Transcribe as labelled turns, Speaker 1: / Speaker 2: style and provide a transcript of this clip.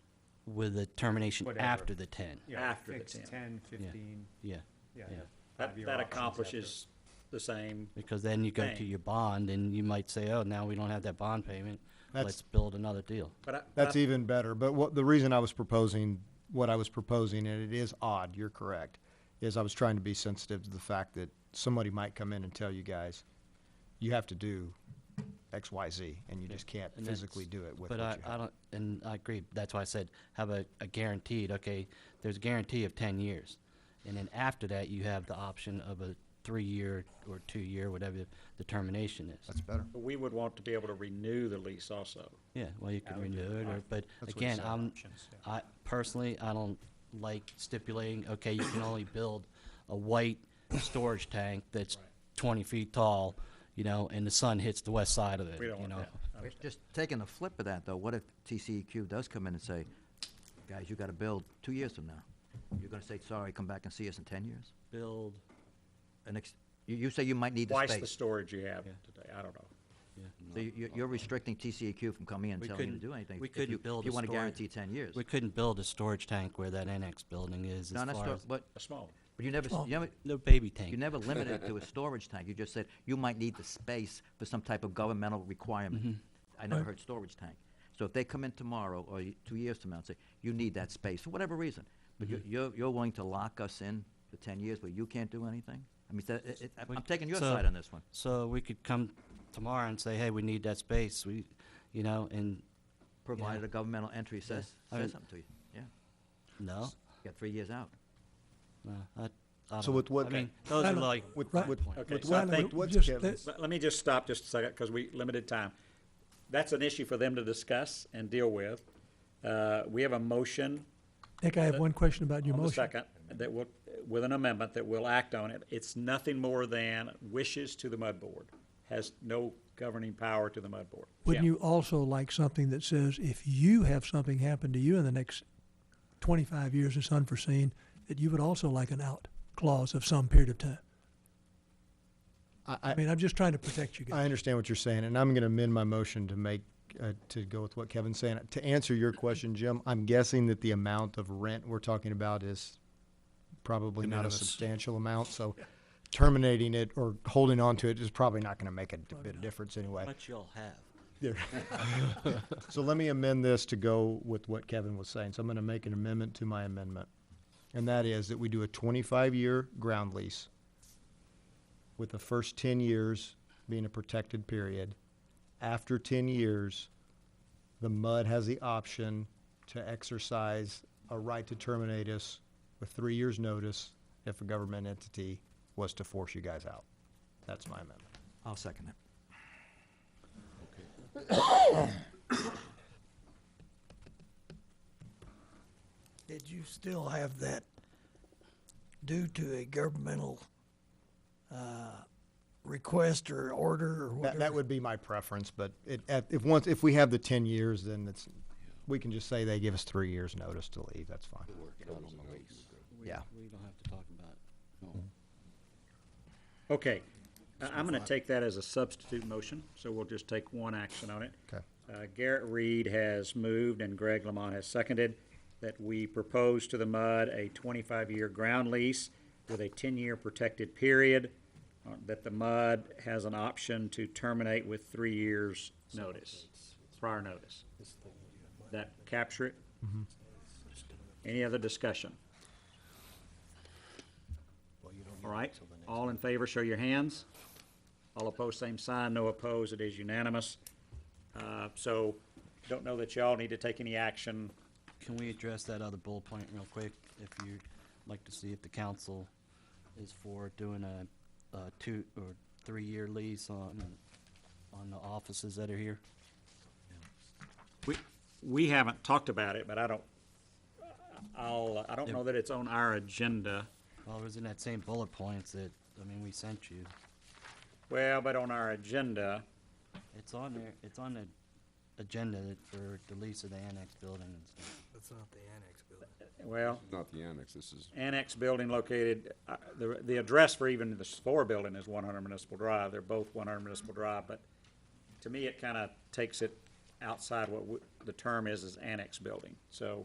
Speaker 1: with a termination
Speaker 2: Whatever.
Speaker 1: after the ten.
Speaker 2: Yeah,
Speaker 3: After the
Speaker 2: fixed
Speaker 3: 10.
Speaker 2: 10, 15,
Speaker 1: Yeah,
Speaker 2: yeah.
Speaker 1: Yeah.
Speaker 3: That,
Speaker 2: five-year
Speaker 3: that
Speaker 2: options
Speaker 3: accomplishes the same.
Speaker 1: because then you go to
Speaker 3: Thing.
Speaker 1: your bond and you might say, oh, now we don't have that bond payment.
Speaker 4: That's-
Speaker 1: Let's build another deal.
Speaker 3: But I-
Speaker 4: That's
Speaker 3: I-
Speaker 4: even better, but what, the reason I was proposing, what I was proposing, and it is odd, you're correct, is I was trying to be sensitive to the fact that somebody might come in and tell you guys, you have to do X, Y, Z, and you just can't
Speaker 1: And
Speaker 4: physically
Speaker 1: that's-
Speaker 4: do it with what
Speaker 1: But
Speaker 4: you
Speaker 1: I, I
Speaker 4: have.
Speaker 1: don't, and I agree, that's why I said, have a, a guaranteed, okay, there's a guarantee of ten years. And then after that, you have the option of a three-year or two-year, whatever the termination is.
Speaker 4: That's better.
Speaker 3: We would want to be able to renew the lease also.
Speaker 1: Yeah, well, you could
Speaker 2: would
Speaker 1: renew it, or, but
Speaker 4: That's what he
Speaker 1: again,
Speaker 4: said,
Speaker 1: I'm,
Speaker 2: options, yeah.
Speaker 1: I, personally, I don't like stipulating, okay, you can only build a white storage tank that's twenty feet tall, you know, and the sun hits the west side of it,
Speaker 3: We don't
Speaker 1: you
Speaker 3: want
Speaker 1: know?
Speaker 3: that.
Speaker 5: Just taking the flip of that, though, what if TCEQ does come in and say, guys, you gotta build two years from now? You're gonna say, sorry, come back and see us in ten years?
Speaker 1: Build,
Speaker 5: And ex- you, you say you might need the
Speaker 3: Twice the
Speaker 5: space.
Speaker 3: storage you have
Speaker 1: Yeah.
Speaker 3: today, I don't know.
Speaker 5: So you- you, you're restricting TCEQ from coming in and
Speaker 1: We
Speaker 5: telling you to
Speaker 1: couldn't-
Speaker 5: do anything.
Speaker 1: we
Speaker 5: if
Speaker 1: couldn't
Speaker 5: you-
Speaker 1: build
Speaker 5: If you
Speaker 1: a
Speaker 5: wanna
Speaker 1: storage-
Speaker 5: guarantee ten years.
Speaker 1: we couldn't build a storage tank where that annex building is,
Speaker 5: No,
Speaker 1: as
Speaker 5: not
Speaker 1: far
Speaker 5: stor-
Speaker 1: as,
Speaker 5: but,
Speaker 3: That's small.
Speaker 5: but you never, s- you never,
Speaker 1: no baby
Speaker 5: you
Speaker 1: tank.
Speaker 5: never limited it to a storage tank. You just said, you might need the space for some type of governmental requirement.
Speaker 1: Mm-hmm.
Speaker 5: I never heard storage tank. So if they come in tomorrow or y- two years from now and say, you need that space, for whatever reason, but you're,
Speaker 1: Mm-hmm.
Speaker 5: you're, you're willing to lock us in for ten years where you can't do anything? I mean, so it- it- I'm-
Speaker 1: We-
Speaker 5: I'm taking your
Speaker 1: so-
Speaker 5: side on this one.
Speaker 1: So we could come tomorrow and say, hey, we need that space, we, you know, and,
Speaker 5: Provided a governmental entry says,
Speaker 1: I mean-
Speaker 5: says something to you, yeah.
Speaker 1: no,
Speaker 5: You got three years out.
Speaker 1: no, I, I
Speaker 4: So
Speaker 1: don't,
Speaker 4: with
Speaker 1: know. I
Speaker 4: what-
Speaker 1: mean, those are
Speaker 6: Randall,
Speaker 1: like,
Speaker 4: With,
Speaker 6: Right.
Speaker 4: with,
Speaker 3: Okay,
Speaker 4: with
Speaker 3: so I
Speaker 4: what,
Speaker 6: Randall,
Speaker 3: think-
Speaker 4: with what
Speaker 6: just
Speaker 4: Kevin's,
Speaker 3: Let, let me just stop just a second, because we, limited time. That's an issue for them to discuss and deal with. Uh, we have a motion
Speaker 6: Nick, I have one question about your
Speaker 3: on the
Speaker 6: motion.
Speaker 3: second that will, with an amendment that will act on it. It's nothing more than wishes to the mud board, has no governing power to the mud board.
Speaker 6: Wouldn't
Speaker 3: Yeah.
Speaker 6: you also like something that says if you have something happen to you in the next twenty-five years that's unforeseen, that you would also like an out clause of some period of time?
Speaker 4: I,
Speaker 6: I
Speaker 4: I,
Speaker 6: mean, I'm just trying to protect you
Speaker 4: I
Speaker 6: guys.
Speaker 4: understand what you're saying, and I'm gonna amend my motion to make, uh, to go with what Kevin's saying. To answer your question, Jim, I'm guessing that the amount of rent we're talking about is probably not a substantial amount, so terminating it or holding on to it is probably not gonna make a d- bit of difference anyway.
Speaker 1: much you'll have.
Speaker 4: There. So let me amend this to go with what Kevin was saying. So I'm gonna make an amendment to my amendment. And that is that we do a twenty-five year ground lease with the first ten years being a protected period. After ten years, the MUD has the option to exercise a right to terminate us with three years' notice if a government entity was to force you guys out. That's my amendment.
Speaker 5: I'll second it.
Speaker 7: Did you still have that due to a governmental uh, request or order or
Speaker 4: That,
Speaker 7: whatever?
Speaker 4: that would be my preference, but it, at- if once, if we have the ten years, then it's, we can just say they give us three years' notice to leave, that's fine. Yeah.
Speaker 1: We don't have to talk about
Speaker 3: Okay, I- I'm gonna take that as a substitute motion, so we'll just take one action on it.
Speaker 4: Okay.
Speaker 3: Uh, Garrett Reed has moved and Greg Lamont has seconded that we propose to the MUD a twenty-five-year ground lease with a ten-year protected period, uh, that the MUD has an option to terminate with three years' notice, prior notice. That capture it? Any other discussion? All right, all in favor, show your hands. All opposed, same sign, no opposed, it is unanimous. Uh, So, don't know that y'all need to take any action.
Speaker 1: Can we address that other bullet point real quick? If you'd like to see if the council is for doing a, a two or three-year lease on, on the offices that are here?
Speaker 3: We, we haven't talked about it, but I don't, I'll, I don't know that it's on our agenda.
Speaker 1: Well, it was in that same bullet points that, I mean, we sent you.
Speaker 3: Well, but on our agenda,
Speaker 1: It's on there, it's on the agenda for the lease of the annex building and stuff.
Speaker 7: That's not the annex building.
Speaker 3: well,
Speaker 8: Not the annex, this is,
Speaker 3: annex building located, uh, the, the address for even the store building is one hundred Municipal Drive. They're both one hundred Municipal Drive, but to me, it kind of takes it outside what we- the term is, is annex building. So